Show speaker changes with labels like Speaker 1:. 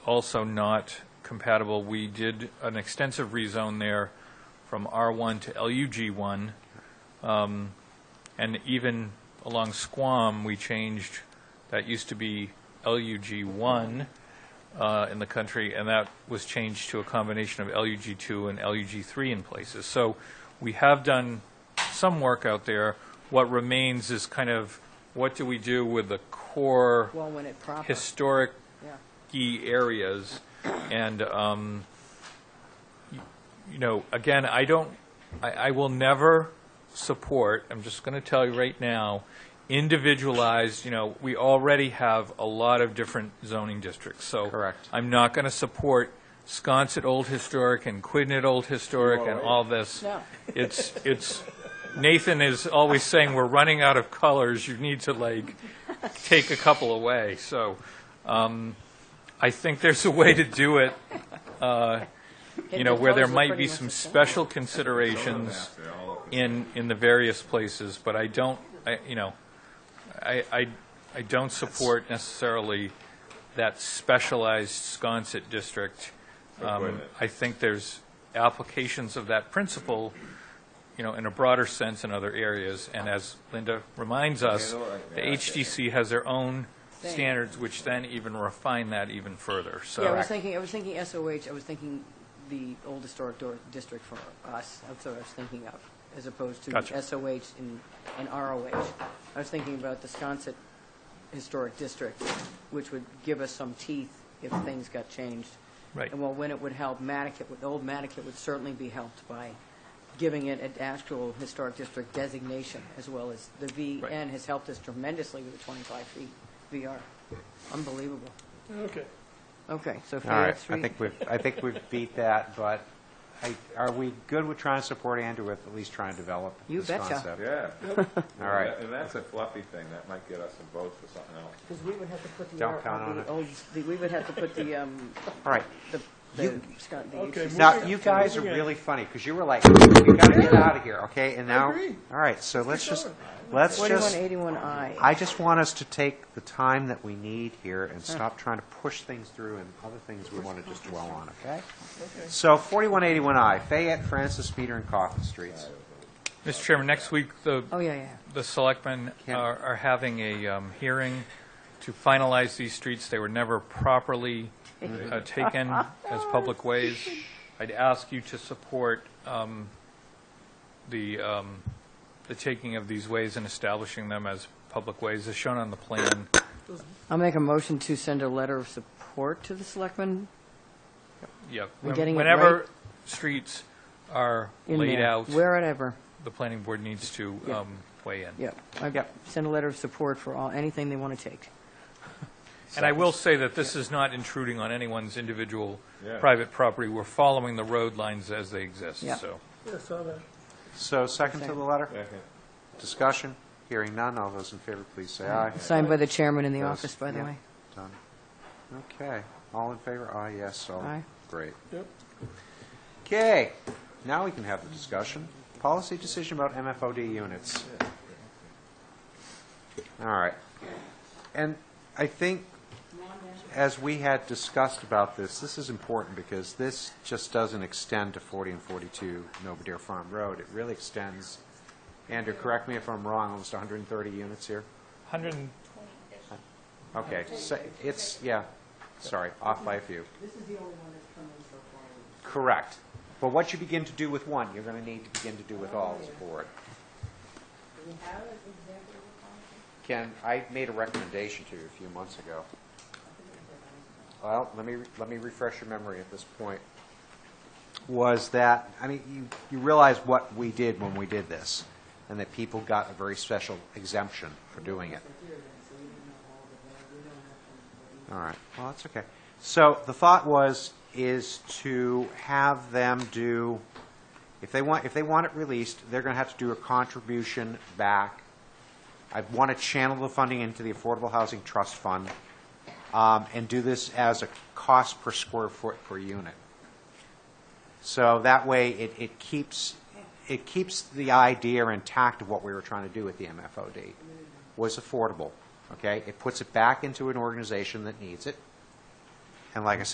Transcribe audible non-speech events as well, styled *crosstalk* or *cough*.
Speaker 1: also not compatible. We did an extensive rezone there from R1 to LUG1, um, and even along Squam, we changed, that used to be LUG1 uh, in the country, and that was changed to a combination of LUG2 and LUG3 in places. So we have done some work out there. What remains is kind of, what do we do with the core
Speaker 2: Well, when it proper,
Speaker 1: historic
Speaker 2: yeah.
Speaker 1: key areas. And, um, y- you know, again, I don't, I, I will never support, I'm just going to tell you right now, individualized, you know, we already have a lot of different zoning districts, so.
Speaker 3: Correct.
Speaker 1: I'm not going to support Sconset Old Historic and Quidnet Old Historic and all this.
Speaker 2: No.
Speaker 1: It's, it's, Nathan is always saying, we're running out of colors, you need to like, take a couple away, so. um, I think there's a way to do it, you know, where there might be some special considerations in, in the various places, but I don't, I, you know, I, I, I don't support necessarily that specialized Sconset district. Um, I think there's applications of that principle, you know, in a broader sense in other areas, and as Linda reminds us, the HDC has their own
Speaker 2: Thing.
Speaker 1: standards, which then even refine that even further, so.
Speaker 2: Yeah, I was thinking, I was thinking SOH, I was thinking the old historic door- district for us, that's what I was thinking of, as opposed to
Speaker 1: Gotcha.
Speaker 2: SOH and, and ROH. I was thinking about the Sconset Historic District, which would give us some teeth if things got changed.
Speaker 1: Right.
Speaker 2: And well, when it would help, Mattocket, would- old Mattocket would certainly be helped by giving it an actual historic district designation, as well as the VN has helped us tremendously with the 25 feet VR. Unbelievable.
Speaker 4: Okay.
Speaker 2: Okay, so if
Speaker 3: All right,
Speaker 2: you're
Speaker 3: I think we've, I think we've beat that, but I- are we good with trying to support Andrew with at least trying to develop
Speaker 2: You
Speaker 3: this
Speaker 2: betcha.
Speaker 3: concept?
Speaker 5: Yeah.
Speaker 3: *laughs* All right.
Speaker 5: And that's a fluffy thing, that might get us some votes for something else.
Speaker 2: Because we would have to put the,
Speaker 3: Don't
Speaker 2: R-
Speaker 3: count on
Speaker 2: the
Speaker 3: it.
Speaker 2: old, the- oh, we would have to put the, um,
Speaker 3: All right.
Speaker 2: the, the,
Speaker 3: You-
Speaker 2: Scott, the.
Speaker 4: Okay,
Speaker 2: HCC.
Speaker 3: Now,
Speaker 4: Moving-
Speaker 3: you guys are
Speaker 4: moving on.
Speaker 3: really funny, because you were like, we gotta get out of here, okay? And now,
Speaker 4: agree.
Speaker 3: all right, so let's just, let's
Speaker 2: Forty-one
Speaker 3: just,
Speaker 2: eighty-one I.
Speaker 3: I just want us to take the time that we need here and stop trying to push things through and other things we want to just dwell on, okay? So 4181I, Fayette, Francis, Peter, and Coffin Streets.
Speaker 1: Mr. Chairman, next week, the
Speaker 2: Oh, yeah, yeah.
Speaker 1: the selectmen
Speaker 3: Ken.
Speaker 1: are are having a um, hearing to finalize these streets. They were never properly uh,
Speaker 2: Mm-hmm.
Speaker 1: taken as public ways. I'd ask you to support um, the, um, the taking of these ways and establishing them as public ways, as shown on the plan.
Speaker 2: I'll make a motion to send a letter of support to the selectmen.
Speaker 1: Yep.
Speaker 2: We're getting it right.
Speaker 1: Whenever streets are
Speaker 2: in
Speaker 1: laid
Speaker 2: there,
Speaker 1: out,
Speaker 2: Wherever,
Speaker 1: the planning board needs to
Speaker 2: Yeah.
Speaker 1: um, weigh in.
Speaker 2: yep. I
Speaker 3: Yep.
Speaker 2: Send a letter of support for all, anything they want to take.
Speaker 1: And I will say that this is not intruding on anyone's individual
Speaker 5: Yeah.
Speaker 1: private property. We're following the road lines as they exist,
Speaker 2: Yeah.
Speaker 1: so.
Speaker 4: Yeah, saw that.
Speaker 3: So second to the letter?
Speaker 5: Second.
Speaker 3: Discussion, hearing none, all those in favor, please say aye.
Speaker 2: Signed by the chairman in the
Speaker 3: Those-
Speaker 2: office, by the
Speaker 3: yeah,
Speaker 2: way.
Speaker 3: done. Okay, all in favor, aye, yes, so,
Speaker 2: Aye.
Speaker 3: great.
Speaker 4: Yep.
Speaker 3: Okay, now we can have the discussion. Policy decision about MFOD units. All right. And I think, as we had discussed about this, this is important because this just doesn't extend to 40 and 42 Nobodere Farm Road. It really extends, Andrew, correct me if I'm wrong, almost 130 units here?
Speaker 1: 100, and-
Speaker 3: Okay, so it's, yeah, sorry, off by a few.
Speaker 2: This is the only one that's come in so far.
Speaker 3: Correct. But what you begin to do with one, you're going to need to begin to do with all as a board. Ken, I made a recommendation to you a few months ago. Well, let me, let me refresh your memory at this point. Was that, I mean, you, you realize what we did when we did this, and that people got a very special exemption for doing it. All right, well, that's okay. So the thought was, is to have them do, if they want, if they want it released, they're going to have to do a contribution back. I want to channel the funding into the Affordable Housing Trust Fund um, and do this as a cost per square foot per unit. So that way, it, it keeps, it keeps the idea intact of what we were trying to do with the MFOD, was affordable, okay? It puts it back into an organization that needs it. And like I said.